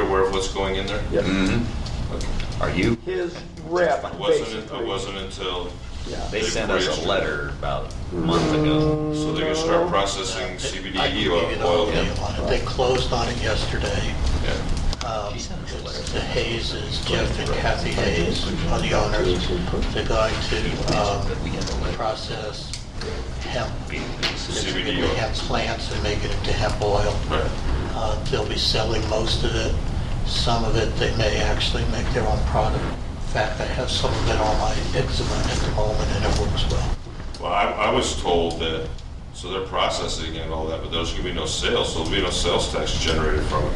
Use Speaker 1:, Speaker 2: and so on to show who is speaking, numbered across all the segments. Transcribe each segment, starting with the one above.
Speaker 1: aware of what's going in there?
Speaker 2: Yep.
Speaker 1: Okay.
Speaker 3: Mm-hmm. Are you?
Speaker 2: His rep,
Speaker 1: It wasn't, it
Speaker 2: basically.
Speaker 1: wasn't until,
Speaker 2: Yeah.
Speaker 3: They sent us a letter about a month ago.
Speaker 1: so they're gonna start processing
Speaker 4: I can
Speaker 1: CBD
Speaker 4: give you the
Speaker 1: oil.
Speaker 4: whole deal on it. They closed on it yesterday.
Speaker 1: Yeah.
Speaker 4: Um, The Hayes is Jeff and Kathy Hayes are the owners. They're going to um, process hemp,
Speaker 1: CBD
Speaker 4: basically
Speaker 1: oil.
Speaker 4: hemp plants and make it into hemp oil.
Speaker 1: E Right.
Speaker 4: Uh, They'll be selling most of it. Some of it, they may actually make their own product. In fact, I have some of it on my eczema at the moment and it works well.
Speaker 1: Well, I, I was told that, so they're processing and all that, but there's gonna be no sales, so there'll be no sales tax generated from it.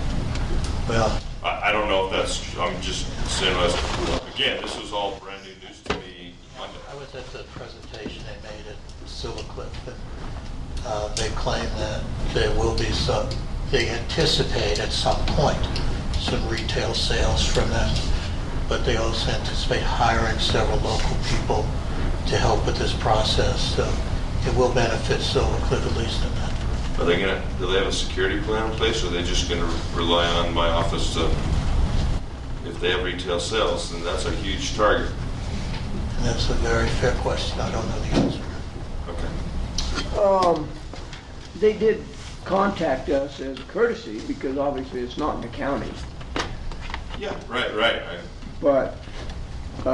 Speaker 4: Well,
Speaker 1: I, I don't know if that's, I'm just saying, that's- again, this was all brand new news to me Monday.
Speaker 4: I was at the presentation they made at Silver Cliff, and uh, they claim that there will be some, they anticipate at some point some retail sales from this, but they also anticipate hiring several local people to help with this process, so it will benefit Silver Cliff at least in that.
Speaker 1: Are they gonna, do they have a security plan in place, or are they just gonna rely on my office to, if they have retail sales, then that's a huge target.
Speaker 4: And that's a very fair question, I don't know the answer.
Speaker 1: Okay.
Speaker 2: Um, They did contact us as courtesy, because obviously it's not in the county,
Speaker 1: Yeah, right, right, I-
Speaker 2: but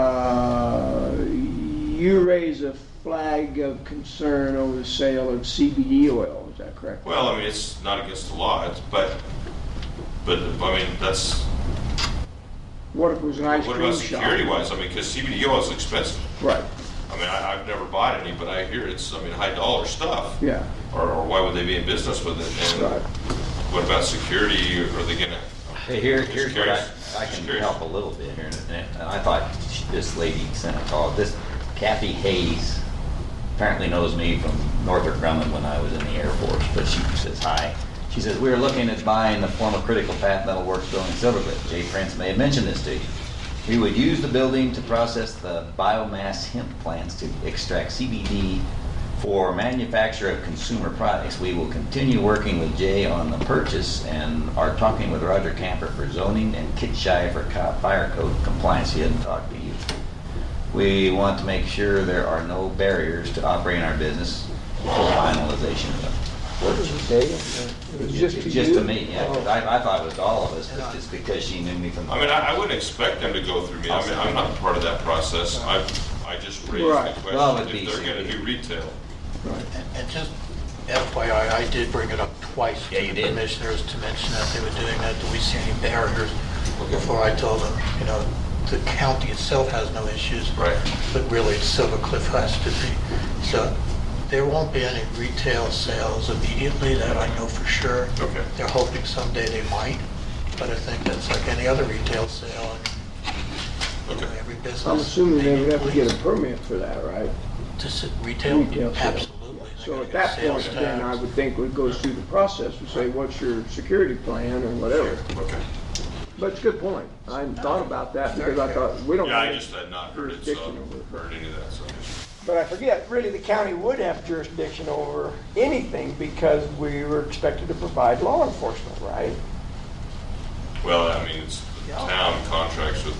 Speaker 2: uh, you raise a flag of concern over the sale of CBD oil, is that correct?
Speaker 1: well, I mean, it's not against the law, it's, but, but, I mean, that's,
Speaker 2: What if it was an ice
Speaker 1: what
Speaker 2: cream
Speaker 1: about
Speaker 2: shop?
Speaker 1: security wise, I mean, because CBD oil is expensive.
Speaker 2: Right,
Speaker 1: I mean, I, I've never bought any, but I hear it's, I mean, high dollar stuff.
Speaker 2: yeah,
Speaker 1: Or, or why would they be in business with it? And
Speaker 2: right.
Speaker 1: what about security? Are they gonna?
Speaker 3: Hey, here, here's what I,
Speaker 1: Curious.
Speaker 3: I can
Speaker 1: Curious.
Speaker 3: help a little bit here. And- And I thought this lady sent a call, this Kathy Hayes apparently knows me from Northrop Grumman when I was in the Air Force, but she says hi. She says, "We are looking at buying the former critical path metal works building Silvercliff. Jay Prince may have mentioned this to you. We would use the building to process the biomass hemp plants to extract CBD for manufacture of consumer products. We will continue working with Jay on the purchase and are talking with Roger Camper for zoning and Kit Shai for co- fire code compliance. He hadn't talked to you. We want to make sure there are no barriers to operating our business for finalization of it.
Speaker 2: What did you say? It was just to you?
Speaker 3: Just to me, yeah, 'cause I, I thought it was to all of us,
Speaker 4: And
Speaker 3: but
Speaker 4: I-
Speaker 3: just because she knew me from.
Speaker 1: I mean, I, I wouldn't expect them to go through me. I mean, I'm not part of that process. I, I just raised
Speaker 2: Right.
Speaker 1: the
Speaker 3: Well,
Speaker 1: question
Speaker 3: it'd
Speaker 1: if
Speaker 3: be
Speaker 1: they're gonna
Speaker 3: easy.
Speaker 1: do retail.
Speaker 2: Right.
Speaker 4: And- And just FYI, I did bring it up twice
Speaker 3: Yeah,
Speaker 4: to
Speaker 3: you
Speaker 4: the
Speaker 3: did.
Speaker 4: commissioners to mention that they were doing that. Do we see any barriers?
Speaker 1: Okay.
Speaker 4: Before I told them, you know, the county itself has no issues.
Speaker 1: Right.
Speaker 4: But really, Silver Cliff has to be. So there won't be any retail sales immediately, that I know for sure.
Speaker 1: Okay.
Speaker 4: They're hoping someday they might, but I think that's like any other retail sale and
Speaker 1: Okay.
Speaker 4: every business.
Speaker 2: I'm assuming they would
Speaker 4: need
Speaker 2: have to get a
Speaker 4: police
Speaker 2: permit for that, right?
Speaker 4: To s- retail,
Speaker 2: Retail sale.
Speaker 4: absolutely. They're
Speaker 2: So
Speaker 4: gonna
Speaker 2: at
Speaker 4: get
Speaker 2: that
Speaker 4: sales
Speaker 2: point, then I
Speaker 4: tax.
Speaker 2: would think it goes through the process, we say, what's your security plan or whatever.
Speaker 1: Okay.
Speaker 2: But it's a good point. I hadn't thought about that because I thought, we don't.
Speaker 1: Yeah, I
Speaker 2: have-
Speaker 1: just had not heard it, so I
Speaker 2: Jurisdiction over
Speaker 1: haven't
Speaker 2: it.
Speaker 1: heard any of that, so. I just-
Speaker 5: But I forget, really, the county would have jurisdiction over anything because we were expected to provide law enforcement, right?
Speaker 1: Well, I mean, it's, the town contracts with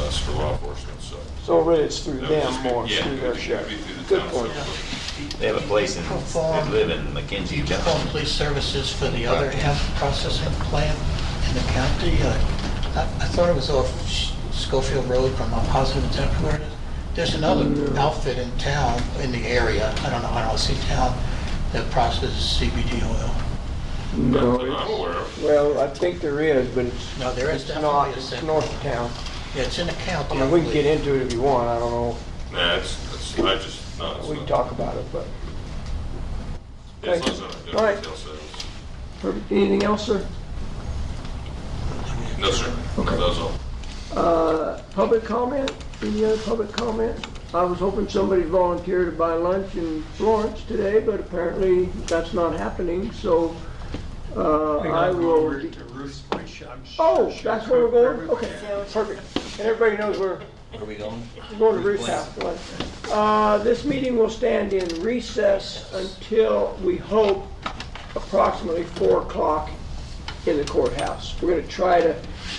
Speaker 1: us for law enforcement, so.
Speaker 5: So really, it's through
Speaker 1: That would
Speaker 5: them
Speaker 1: just be-
Speaker 5: more,
Speaker 1: yeah,
Speaker 5: through
Speaker 1: it
Speaker 5: their
Speaker 1: would be
Speaker 5: sheriff.
Speaker 1: through the
Speaker 5: Good
Speaker 1: town
Speaker 5: point.
Speaker 1: sheriff.
Speaker 3: They have a place in,
Speaker 4: Perform.
Speaker 3: they live in McKenzie,
Speaker 4: Home
Speaker 3: Johnson.
Speaker 4: police services for the other hemp processing plant in the county. uh, I I thought it was off Sch- Schofield Road, but I'm not positive it's where it is. There's another outfit in town, in the area, I don't know, I don't see town, that processes CBD oil.
Speaker 1: Not
Speaker 2: No,
Speaker 1: that I'm
Speaker 2: it's-
Speaker 1: aware of.
Speaker 5: Well, I think there is, but it's,
Speaker 4: No, there is
Speaker 5: it's
Speaker 4: definitely
Speaker 5: not,
Speaker 4: a
Speaker 5: it's
Speaker 4: separate-
Speaker 5: north of town.
Speaker 4: Yeah, it's in the
Speaker 5: I
Speaker 4: county.
Speaker 5: mean, we can
Speaker 4: believe.
Speaker 5: get into it if you want, I don't know,
Speaker 1: Nah, it's, it's, I just, no, it's
Speaker 5: we can
Speaker 1: not.
Speaker 5: talk about it, but.
Speaker 1: It's
Speaker 5: Thank
Speaker 1: not
Speaker 5: you.
Speaker 1: something
Speaker 5: All
Speaker 1: to
Speaker 5: right.
Speaker 1: do with retail sales.
Speaker 2: Perfect. Anything else, sir?
Speaker 1: No, sir.
Speaker 2: Okay.
Speaker 1: That's all.
Speaker 2: Uh, Public comment? Any other public comment? I was hoping somebody volunteered to buy lunch in Florence today, but apparently that's not happening, so uh, I will. Oh, that's where we're going? Okay, perfect.
Speaker 5: And everybody knows we're
Speaker 3: Where are we going?
Speaker 5: going to Ruth's house, right?
Speaker 2: Uh, This meeting will stand in recess until, we hope, approximately 4 o'clock in the courthouse. We're going to try to